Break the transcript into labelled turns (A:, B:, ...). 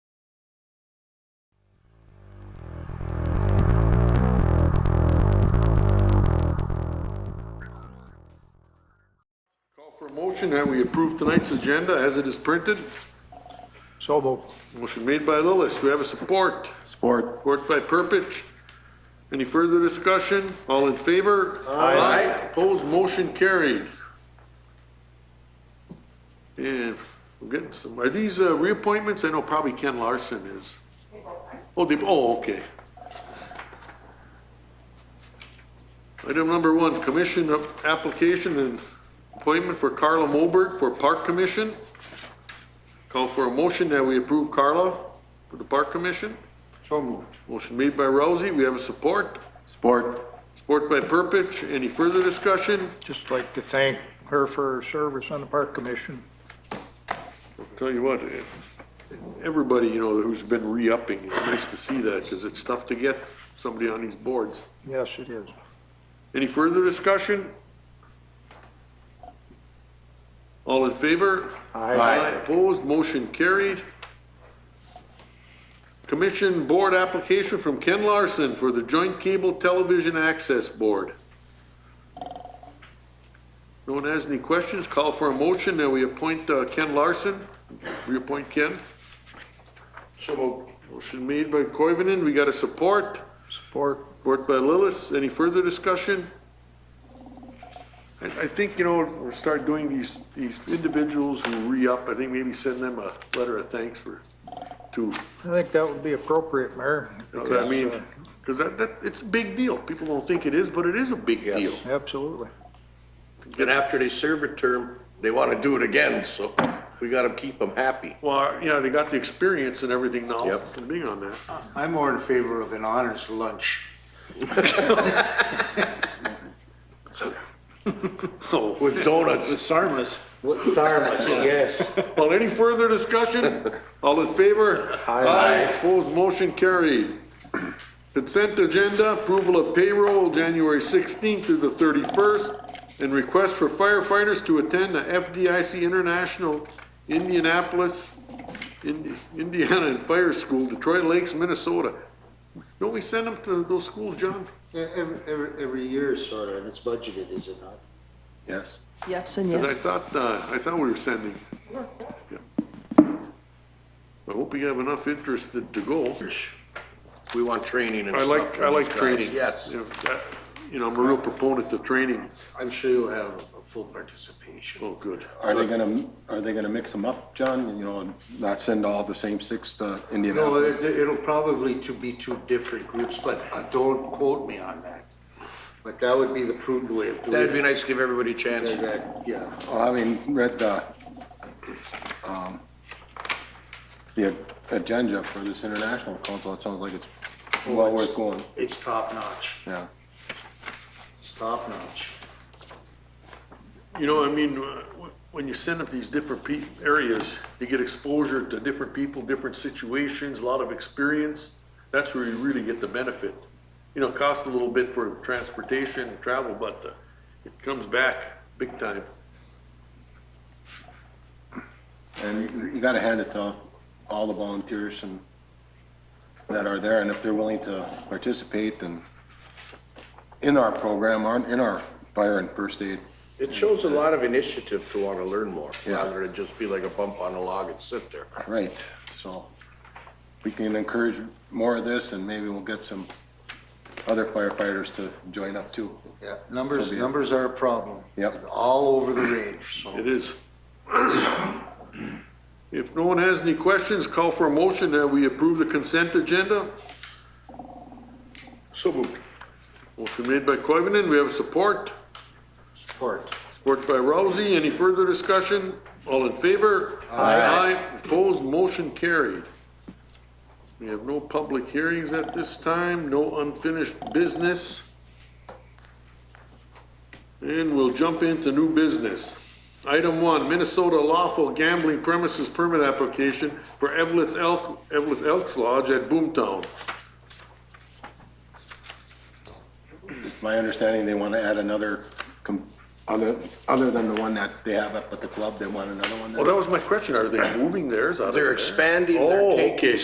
A: motion that we approve tonight's agenda as it is printed?
B: So moved.
A: Motion made by Lillis. Do we have a support?
B: Support.
A: Support by Purpich. Any further discussion? All in favor? Aye. Opposed, motion carried. And we're getting some, are these uh, reappointments? I know probably Ken Larson is. Oh, they, oh, okay. Item number one, commission of- application and appointment for Carla Moberg for Park Commission. Call for a motion that we approve Carla for the Park Commission.
B: So moved.
A: Motion made by Rousey, we have a support.
B: Support.
A: Support by Purpich, any further discussion?
B: Just like to thank her for her service on the Park Commission.
A: Tell you what, eh, everybody, you know, who's been re-upping, it's nice to see that, because it's tough to get somebody on these boards.
B: Yes, it is.
A: Any further discussion? All in favor? Opposed, motion carried. Commission Board application from Ken Larson for the Joint Cable Television Access Board. No one has any questions, call for a motion that we appoint uh, Ken Larson. Reappoint Ken.
B: So moved.
A: Motion made by Koivunen, we got a support.
B: Support.
A: Support by Lillis. Any further discussion? I, I think, you know, we'll start doing these, these individuals who re-up, I think maybe send them a letter of thanks for, to,
B: I think that would be appropriate, Mayor.
A: you know what I
B: because,
A: mean?
B: uh,
A: Because that, that, it's a big deal. People don't think it is, but it is a big
C: Yes.
A: deal.
B: uh, Absolutely.
C: And after they serve a term, they want to do it again, so we got to keep them happy.
A: Well, yeah, they got the experience and everything now
C: Yep.
A: from being on that.
D: I'm more in favor of an honors lunch
A: So,
C: With donuts,
D: Sarmas. What Sarmas? Yes.
A: well, any further discussion? All in favor?
D: Aye.
A: Opposed, motion carried. Consent agenda, approval of payroll, January 16th through the 31st, and request for firefighters to attend the FDIC International Indianapolis, Ind- Indiana and Fire School, Detroit Lakes, Minnesota. Don't we send them to those schools, John?
D: E-, Every, every, every year, sort of, and it's budgeted, is it not?
C: yes.
E: Yes and
A: 'Cause I
E: yes.
A: thought, uh, I thought we were sending. Yeah. I hope we have enough interested to go.
C: We want training and
A: I
C: stuff.
A: like,
C: for
A: I like
C: these guys.
A: training.
C: Yes.
A: You know, I- You know, I'm a real proponent of training.
D: I'm sure you'll have a full participation.
A: Oh, good.
F: Are they gonna, are they gonna mix them up, John, you know, and not send all the same six to
D: No,
F: Indianapolis?
D: it- it'll probably to be two different groups, but uh, don't quote me on that. But that would be the prudent way of
C: That'd
D: doing
C: be
D: it.
C: nice to give everybody a chance.
D: Yeah, that- Yeah,
F: Well, I mean, read the, um, the agenda for this international council, it sounds like it's well worth going,
D: it's top notch,
F: yeah.
D: it's top notch.
A: You know, I mean, uh, wh- when you send up these different pe- areas, you get exposure to different people, different situations, a lot of experience. That's where you really get the benefit. You know, it costs a little bit for transportation and travel, but uh, it comes back big time.
F: And you gotta hand it to all the volunteers and that are there, and if they're willing to participate and in our program, aren't in our fire and first aid,
C: It shows a lot of initiative to want to learn more,
F: Yeah.
C: rather than just be like a bump on a log and sit there.
F: Right, so we can encourage more of this and maybe we'll get some other firefighters to join up too.
D: Yeah, numbers,
F: So be it.
D: numbers are a problem.
F: Yep.
D: All over the range, so.
A: It is. If no one has any questions, call for a motion that we approve the consent agenda.
C: So moved.
A: Motion made by Coivinon, we have support.
D: Support.
A: Support by Rousey. Any further discussion? All in favor? Aye. Opposed, motion carried. We have no public hearings at this time, no unfinished business. And we'll jump into new business. Item one, Minnesota lawful gambling premises permit application for Evelith Elk, Evelith Elks Lodge at Boomtown.
F: It's my understanding they want to add another, com- other, other than the one that they have up at the club, they want another one there.
A: Well, that was my question. Are they moving theirs out of
C: They're
A: there?
C: expanding, they're
A: Oh,
C: taking
A: okay.